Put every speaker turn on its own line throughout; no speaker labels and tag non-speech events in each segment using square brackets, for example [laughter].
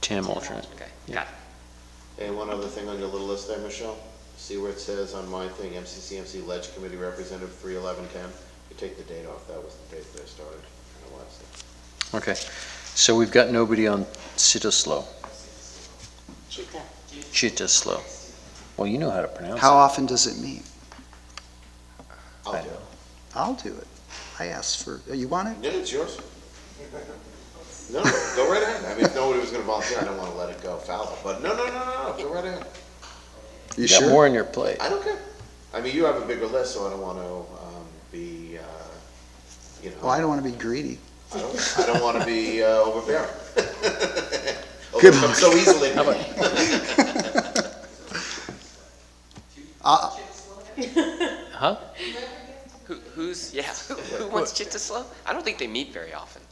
Tim alternate.
Okay,
Yeah.
got it.
And one other thing on your little list there, Michelle, see where it says on my thing, MCCMC Ledge Committee Representative, three eleven ten? You take the date off, that was the date that I started, I don't know why it's there.
Okay, so we've got nobody on Citaslow,
Cheetah.
Citaslow. Well, you know how to pronounce
How
it.
often does it meet?
I
I'll do it.
I'll do it. I asked for, you want it?
Yeah, it's yours. No, no, go right ahead, I mean, if nobody was gonna volunteer, I don't wanna let it go foul, but no, no, no, no, no, go right ahead,
You
You got
sure?
more on your plate.
I don't care. I mean, you have a bigger list, so I don't wanna, um, be, uh, you know.
Well, Oh, I don't want to be greedy.
I don't, I don't wanna be, uh, overbearing. [laughs]
Good
Overcome So easily.
Uh,
Huh?
Who, who's, yeah, [laughs] who who wants Chittislow? I don't think they meet very often.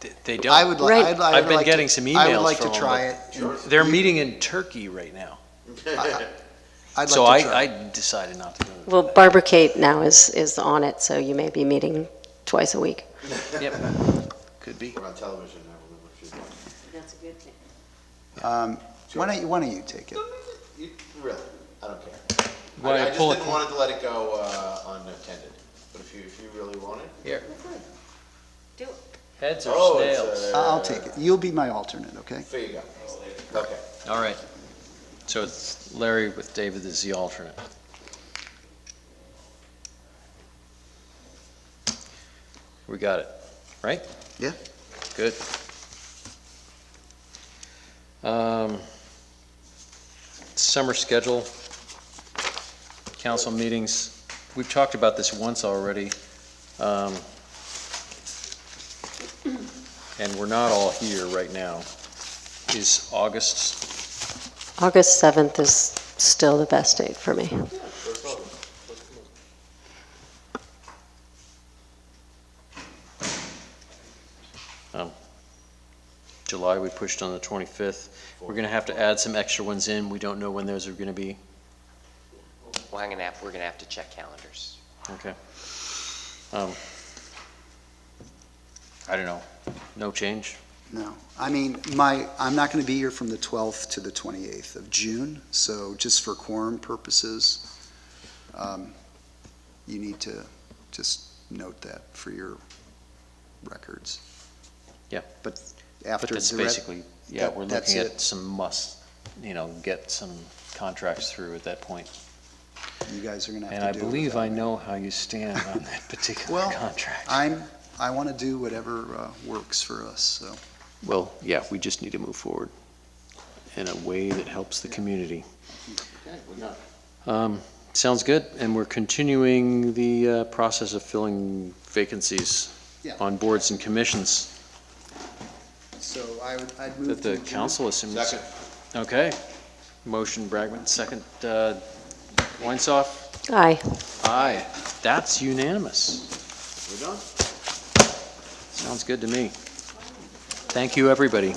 They- They
I
don't.
would like, I'd, I
I've
would
been
like to-
getting some
I would
emails
like to
from 'em,
try it.
but-
Sure.
They're meeting in Turkey right now.
[laughs]
I'd
So
like to
I,
try.
I
it.
decided not to go.
Well, Barbara Kate now is, is on it, so you may be meeting twice a week.
Yep, could be.
We're on television now, remember, if you want.
That's a good thing.
Um, Why don't, you- why don't you take it?
You- Really, I don't care.
Why
I I just
pull it-
didn't want it to let it go, uh, unattended, but if you, if you really want it.
Here.
Do it.
Heads
Oh,
or
it's,
snails?
uh,
I'll take it. You'll be my alternate, okay?
There you go. Okay.
uh,
All right. So it's Larry with David as the alternate. We got it, right?
Yeah.
Good. Um, Summer schedule, council meetings. We've talked about this once already. um, And we're not all here right now. Is August
August 7th is still the best date for me.
July, we pushed on the 25th. We're going to have to add some extra ones in. We don't know when those are going to be.
Well, I'm gonna have, we're gonna have to check calendars.
Okay. Um, I don't know. No change?
No. I mean, my, I'm not going to be here from the 12th to the 28th of June, so just for quorum purposes, um, you need to just note that for your records.
Yeah.
But
But
after
that's
the re-
basically, yeah,
that-
we're
that's
looking at
it.
some must, you know, get some contracts through at that point.
you guys are going to
And
have
I
to do it
believe
without
I
me.
know how you stand on [laughs] that particular
Well,
contract.
I'm, I want to do whatever uh, works for us, so.
Well, yeah, we just need to move forward in a way that helps the community.
Okay, we're done.
Um, Sounds good, and we're continuing the uh, process of filling vacancies
Yeah.
on boards and commissions
So I would, I'd move.
that the
to adjourn.
council assumes.
Second.
Okay. Motion Bragman, second uh, Weinsoff.
Aye.
Aye. That's unanimous.
We're done?
Sounds good to me. Thank you, everybody.